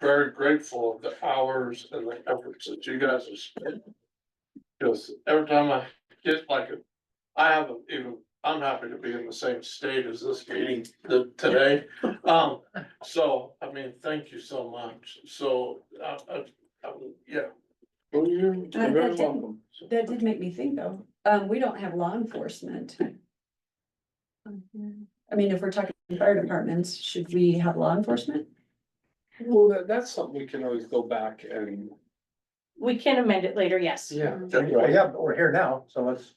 very grateful of the hours and the efforts that you guys have spent. Because every time I get like, a- I haven't even, I'm happy to be in the same state as this meeting th- today. Um, so, I mean, thank you so much. So, uh, uh, um, yeah. Well, you're that you're very didn't- welcome. That did make me think though, um, we don't have law enforcement. I mean, if we're talking fire departments, should we have law enforcement? Well, that, that's something we can always go back and. We can amend it later, yes. Mm-hmm. Yeah. Well, yeah, but we're here now, so let's,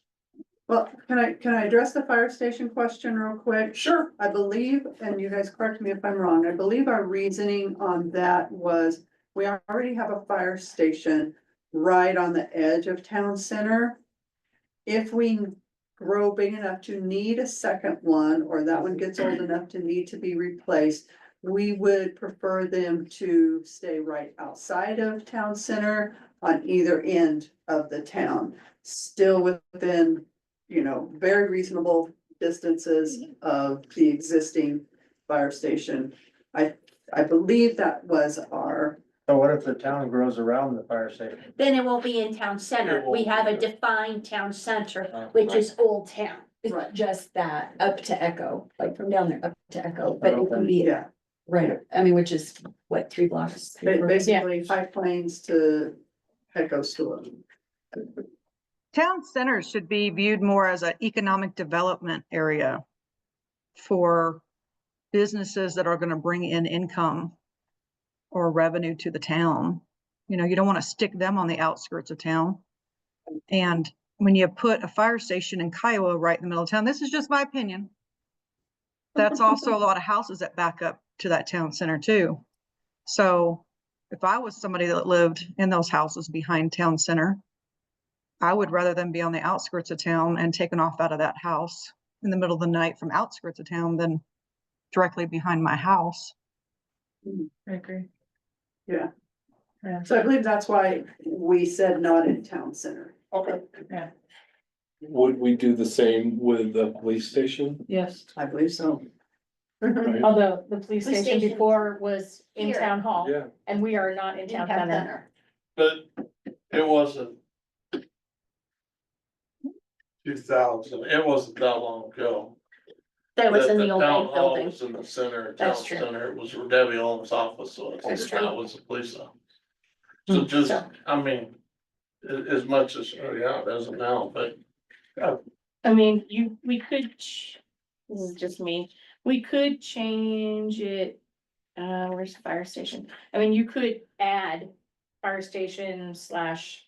Well, can I, can I address the fire station question real quick? Sure. I believe, and you guys correct me if I'm wrong, I believe our reasoning on that was, we already have a fire station right on the edge of town center. If we grow big enough to need a second one, or that one gets old enough to need to be replaced, we would prefer them to stay right outside of town center on either end of the town, still within, you know, very reasonable distances of the existing fire station. I, I believe that was our, so what if the town grows around the fire station? Then it won't be in town center. It We won't, have a yeah. defined town center, Uh, which is Old Town. It's Right. just that up to Echo, like from down there up to Echo, but it would be, yeah, right, I mean, which is what, three blocks? three ba- blocks? basically High Plains to Echo School. Town centers should be viewed more as an economic development area for businesses that are going to bring in income or revenue to the town. You know, you don't want to stick them on the outskirts of town. And when you put a fire station in Kiowa right in the middle of town, this is just my opinion. That's also a lot of houses that back up to that town center too. So if I was somebody that lived in those houses behind town center, I would rather them be on the outskirts of town and taken off out of that house in the middle of the night from outskirts of town than directly behind my house. I agree. So I believe that's why we said not in town center. Okay. Would we do the same with the police station? Yes, I believe so. Right? although the police Police station station. before was in Here. town hall Yeah, and we are not in In town town center. center. But it wasn't. Two thousand, it wasn't that long ago. That was in that the old town bank hall building. Was in the center, of town That's true. center, it was where Debbie Holmes' office, so it's, That's that true. Hmm, was the police office. So just, So- I mean, a- as much as, oh yeah, it doesn't now, but I mean, you, we could, ch- this is just me, we could change it. Uh, where's the fire station? I mean, you could add fire station slash.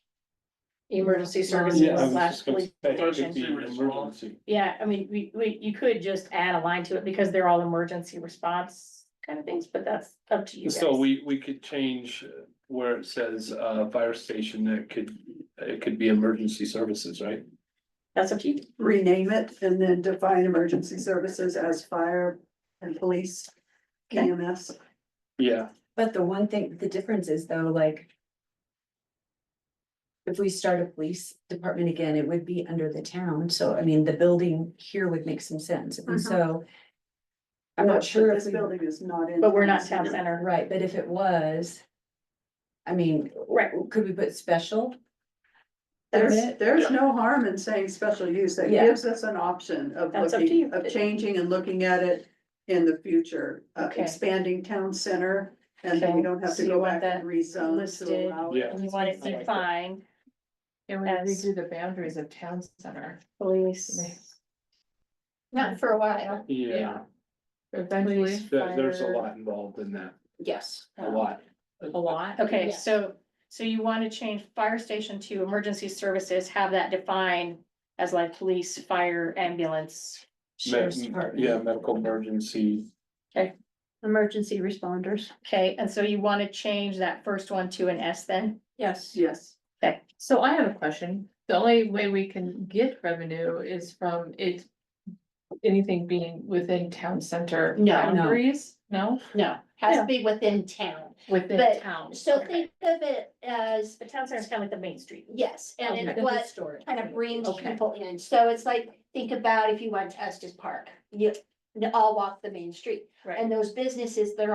Emergency yeah, services I was slash just gonna police say, it could station. be emergency. Yeah, I mean, we, we, you could just add a line to it because they're all emergency response kind of things, but that's up to you guys. So we, we could change where it says, uh, fire station, it could, it could be emergency services, right? That's up to you. Rename it and then define emergency services as fire and police, E EMS. Yeah. But the one thing, the difference is though, like. If we start a police department again, it would be under the town, so I mean, the building here would make some sense, and so. I'm But not sure if Uh-huh. This we, building is not in. But we're not town center. right, but if it was. I mean, Right. could we put special? There's, Permit? there's no harm in saying special use, that Yeah. gives us an option of That's up to looking, you. of changing and looking at it in the future. uh, Okay. expanding town center, and then we Okay, don't have so to you go want back and rezone listed? to allow. it. Yeah. We want it defined And we as- redo the boundaries of town center. police. Not for a while. Yeah, Eventually, there- there's a fire. lot involved in that, Yes. a lot. A lot. Okay, Yes. so, so you want to change fire station to emergency services, have that defined as like police, fire, ambulance. Sheriff's Me- Department. Yeah, medical emergency, Emergency responders. Okay, and so you want to change that first one to an S then? Yes. Yes, Okay, So I have a question. The only way we can get revenue is from it. Anything being within town center No. No. boundaries, no, no, Has to be within town. within But- town. So Okay. think of it as, the town center is kind of like the main street. yes, and it Okay. was Storage. kind of brings Okay. people in, so it's like, think about if you went to Estes Park, you, you all walk the main street. Right. And those businesses, they're